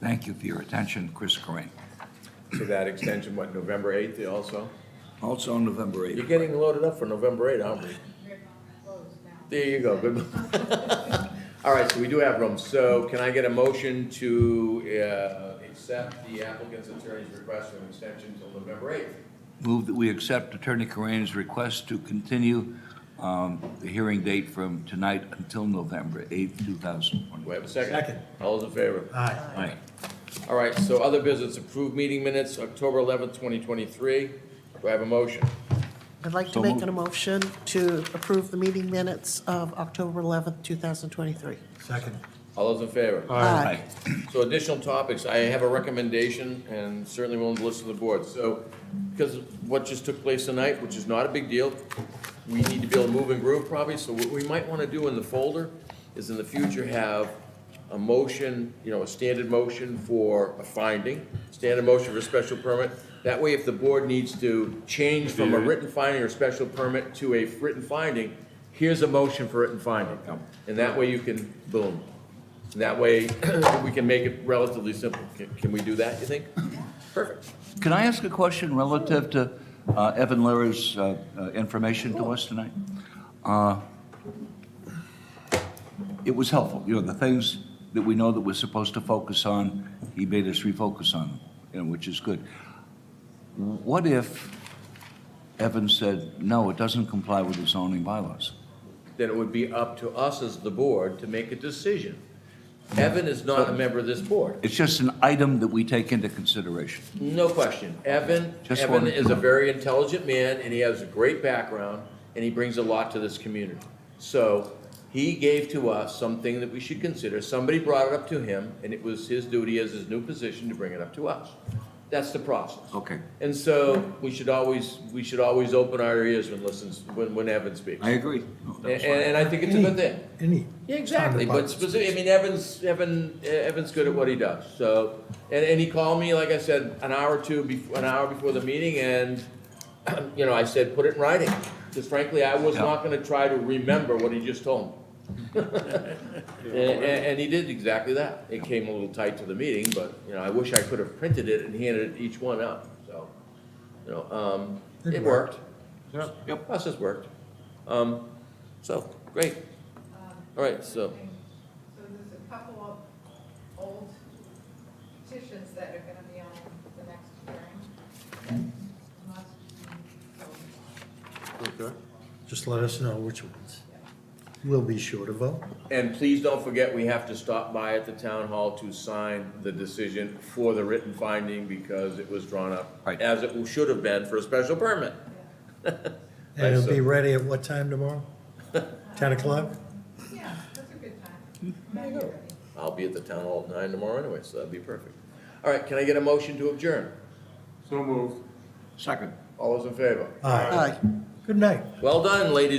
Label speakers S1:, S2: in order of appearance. S1: Thank you for your attention, Chris Corain.
S2: to that extension, what, November 8th also?
S1: Also on November
S2: You're
S1: 8th.
S2: getting loaded up for November 8th, aren't we? There you go, good. All right, so we do have room. So can I get a motion to uh, accept the applicant's attorney's request for an extension till November 8th?
S1: Move that we accept Attorney Corain's request to continue um, the hearing date from tonight until November 8th, 2020.
S2: Do I have a second?
S3: Second.
S2: All those in favor?
S3: Aye.
S1: Right.
S2: All right, so other business, approved meeting minutes, October 11th, 2023. Do I have a motion?
S4: I'd like
S1: So
S4: to make
S1: moved.
S4: an motion to approve the meeting minutes of October 11th, 2023.
S3: Second.
S2: All those in favor?
S1: Aye.
S2: So additional topics, I have a recommendation and certainly willing to listen to the board. So, because of what just took place tonight, which is not a big deal, we need to be able to move and groove probably, so what we might want to do in the folder is in the future have a motion, you know, a standard motion for a finding, standard motion for a special permit. That way, if the board needs to change from a written finding or special permit to a written finding, here's a motion for written finding. And that way you can, boom. And That way, we can make it relatively simple. Can- Can we do that, you think? Perfect.
S1: Can I ask a question relative to uh, Evan Lara's uh, uh, information to us tonight? Uh, It was helpful, you know, the things that we know that we're supposed to focus on, he made us refocus on, you know, which is good. What if Evan said, no, it doesn't comply with the zoning bylaws?
S2: Then it would be up to us as the board to make a decision. Evan is not a member of this board,
S1: It's just an item that we take into consideration.
S2: no question. Evan,
S1: Just
S2: Evan
S1: wanted-
S2: is a very intelligent man, and he has a great background, and he brings a lot to this community. So he gave to us something that we should consider. Somebody brought it up to him, and it was his duty as his new position to bring it up to us. That's the process.
S1: Okay.
S2: And so we should always, we should always open our ears when listens, when, when Evan speaks.
S1: I agree. No,
S2: And,
S1: that's fine.
S2: and I think it's a good thing.
S3: Any.
S2: Yeah, exactly, but specific, I mean, Evan's, Evan, eh, Evan's good at what he does, so. And, and he called me, like I said, an hour or two before, an hour before the meeting, and, you know, I said, put it in writing. Because frankly, I was
S1: Yeah.
S2: not gonna try to remember what he just told me. And, and- and he did exactly that. It came a little tight to the meeting, but, you know, I wish I could have printed it and handed it each one out, so. You know, um,
S3: It
S2: it worked.
S3: worked.
S2: Yep, process worked. Um, so, great. All right, so.
S5: So there's a couple of old petitions that are gonna be on the next hearing. that must be voted
S2: Okay.
S3: Just let us know which ones. We'll be sure to vote.
S2: And please don't forget, we have to stop by at the town hall to sign the decision for the written finding because it was drawn up
S1: Right.
S2: as it should have been for a special permit.
S3: And it'll be ready at what time tomorrow? Ten o'clock?
S5: on. Yeah, that's a good time. There you go.
S2: I'll be at the town hall at nine tomorrow anyway, so that'd be perfect. All right, can I get a motion to adjourn?
S1: Second.
S2: All those in favor?
S3: Aye.
S4: Aye.
S3: Good night.
S2: Well done, ladies